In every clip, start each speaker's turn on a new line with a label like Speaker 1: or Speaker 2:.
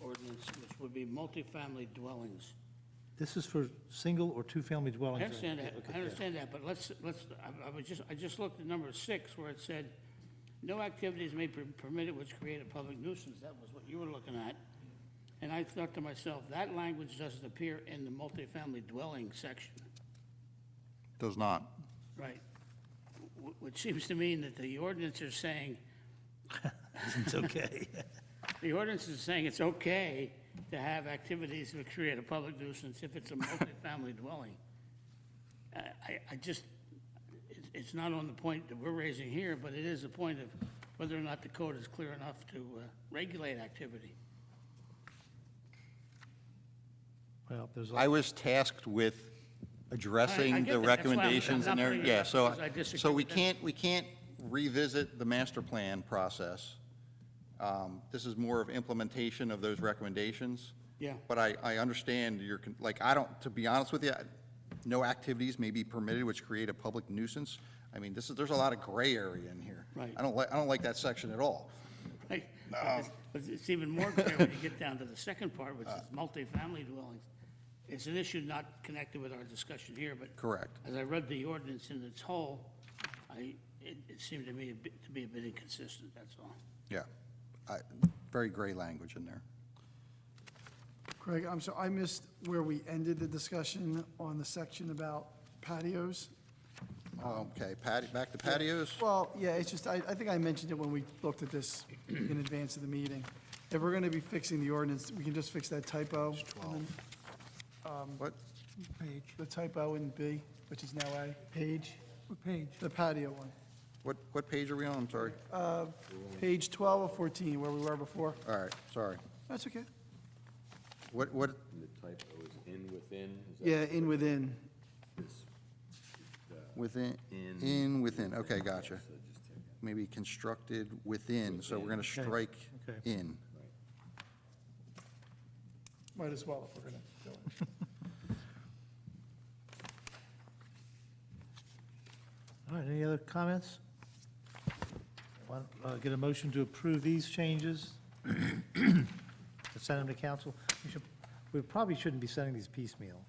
Speaker 1: ordinance, which would be multifamily dwellings.
Speaker 2: This is for single or two-family
Speaker 1: I
Speaker 2: dwellings? right?
Speaker 1: understand that,
Speaker 2: Okay,
Speaker 1: I
Speaker 2: yeah.
Speaker 1: understand that, but let's, let's, I, I was just, I just looked at number six where it said, no activities may be permitted which create a public nuisance, that was what you were looking at. And I thought to myself, that language doesn't appear in the multifamily dwelling section,
Speaker 3: Does not.
Speaker 1: right? Wh- Which seems to mean that the ordinance is saying,
Speaker 2: It's okay.
Speaker 1: the ordinance is saying it's okay to have activities that create a public nuisance if it's a multifamily dwelling. I, I- I just, it's- it's not on the point that we're raising here, but it is the point of whether or not the code is clear enough to uh, regulate activity.
Speaker 2: Well, there's,
Speaker 3: I
Speaker 2: a-
Speaker 3: was tasked with
Speaker 1: I- I
Speaker 3: addressing
Speaker 1: get
Speaker 3: the
Speaker 1: that. That's why I'm-
Speaker 3: recommendations
Speaker 1: I'm
Speaker 3: and
Speaker 1: not
Speaker 3: everything.
Speaker 1: bringing it
Speaker 3: Yeah,
Speaker 1: up
Speaker 3: so,
Speaker 1: because I disagree
Speaker 3: so we
Speaker 1: with that.
Speaker 3: can't, we can't revisit the master plan process. Um, This is more of implementation of those recommendations.
Speaker 1: Yeah.
Speaker 3: But I, I understand your, con- like, I don't, to be honest with you, I- no activities may be permitted which create a public nuisance. I mean, this is, there's a lot of gray area in here.
Speaker 1: Right.
Speaker 3: I don't like, I don't like that section at all.
Speaker 1: right? But it's- But it's even more clear when you get down to the second part, which is multifamily dwellings. It's an issue not connected with our discussion here, but.
Speaker 3: Correct.
Speaker 1: As I read the ordinance in its whole, I, it, it seemed to me a bit, to be a bit inconsistent, that's all.
Speaker 3: Yeah. I- Very gray language in there.
Speaker 4: Craig, I'm sorry, I missed where we ended the discussion on the section about patios.
Speaker 1: Um,
Speaker 3: Okay, patio, back to patios?
Speaker 4: Well, yeah, it's just, I, I think I mentioned it when we looked at this in advance of the meeting. If we're gonna be fixing the ordinance, we can just fix that typo. and then
Speaker 3: What?
Speaker 4: The typo in B, which is now A. Page? What page? The patio one.
Speaker 3: What, what page are we on? I'm sorry.
Speaker 4: Page 12 or 14, where we were before.
Speaker 3: All right, sorry.
Speaker 4: That's okay.
Speaker 3: What, what,
Speaker 5: The typo is in within, is that
Speaker 4: Yeah, in within.
Speaker 5: this?
Speaker 3: within,
Speaker 5: In.
Speaker 3: in, within, okay, gotcha. Maybe constructed within, so we're gonna strike
Speaker 2: okay.
Speaker 3: in.
Speaker 4: Might as well if we're gonna do it.
Speaker 2: all right, any other comments? Want- uh, Get a motion to approve these changes? To Send them to council? We should, we probably shouldn't be sending these piecemeal.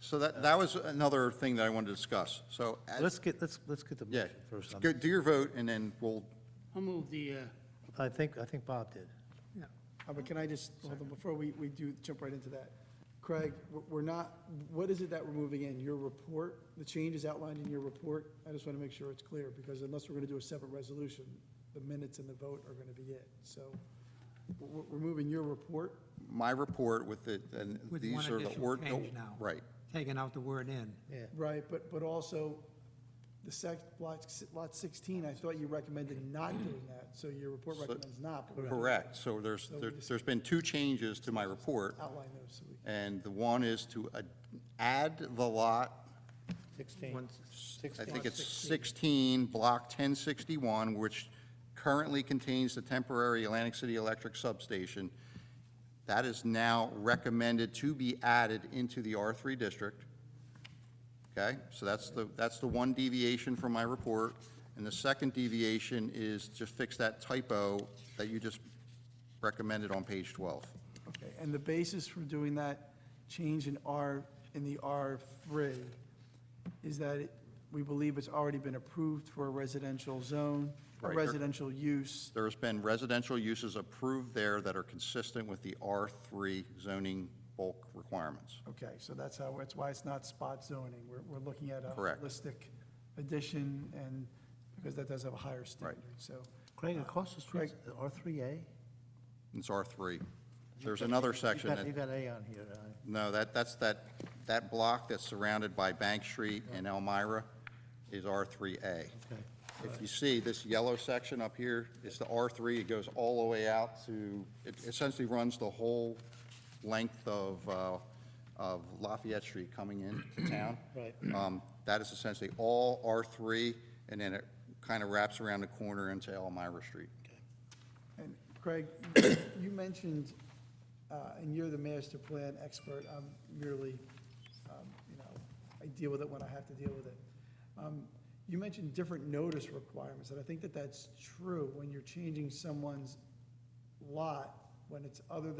Speaker 3: So that, that was another thing that I wanted to discuss, so. at-
Speaker 2: Let's get, let's, let's get the
Speaker 3: Yeah,
Speaker 2: motion first. on
Speaker 3: go,
Speaker 2: this.
Speaker 3: do your vote, and then we'll,
Speaker 1: I'll move the, uh,
Speaker 2: I think, I think Bob did.
Speaker 4: Uh, But can I just, hold on, before we, we do jump right into that, Craig, we're- we're not, what is it that we're moving in? Your report, the changes outlined in your report? I just want to make sure it's clear, because unless we're going to do a separate resolution, the minutes and the vote are going to be it. So we're, we're moving your report,
Speaker 3: my report with it, and
Speaker 6: With one
Speaker 3: these are the.
Speaker 6: additional
Speaker 3: ord-
Speaker 6: change now.
Speaker 3: Right,
Speaker 6: Taking out the word "in."
Speaker 2: Yeah.
Speaker 4: right, but, but also the sec, lot, s- lot 16, I thought you recommended not doing that, so your report recommends not. but we're gonna
Speaker 3: correct, so there's, there- there's been two changes to my report,
Speaker 4: Outline those, so we,
Speaker 3: and the one is to ad- add the lot
Speaker 2: 16.
Speaker 3: I think it's 16, Block 1061, which currently contains the temporary Atlantic City Electric Substation. That is now recommended to be added into the R3 district. Okay? So that's the, that's the one deviation from my report. And the second deviation is just fix that typo that you just recommended on page 12.
Speaker 4: Okay, and the basis for doing that change in R, in the R3, is that it- we believe it's already been approved for a residential zone, a
Speaker 3: Right, there-
Speaker 4: residential use,
Speaker 3: There has been residential uses approved there that are consistent with the R3 zoning bulk requirements.
Speaker 4: okay, so that's how, that's why it's not spot zoning, we're, we're looking at a
Speaker 3: Correct.
Speaker 4: holistic addition, and, because that does have a higher standard, so.
Speaker 2: Craig, across the street, R3A?
Speaker 3: It's R3. There's another section
Speaker 2: you
Speaker 3: that,
Speaker 2: got A on here. uh,
Speaker 3: no, that, that's that, that block that's surrounded by Bank Street and Elmira is R3A.
Speaker 2: Okay.
Speaker 3: If you see this yellow section up here, it's the R3, it goes all the way out to, it essentially runs the whole length of, uh, of Lafayette Street coming into town.
Speaker 2: Right.
Speaker 3: Um, That is essentially all R3, and then it kind of wraps around the corner into Elmira Street.
Speaker 4: And Craig, you mentioned, uh, and you're the master plan expert, I'm merely, um, you know, I deal with it when I have to deal with it. Um, You mentioned different notice requirements, and I think that that's true when you're changing someone's lot, when it's other than.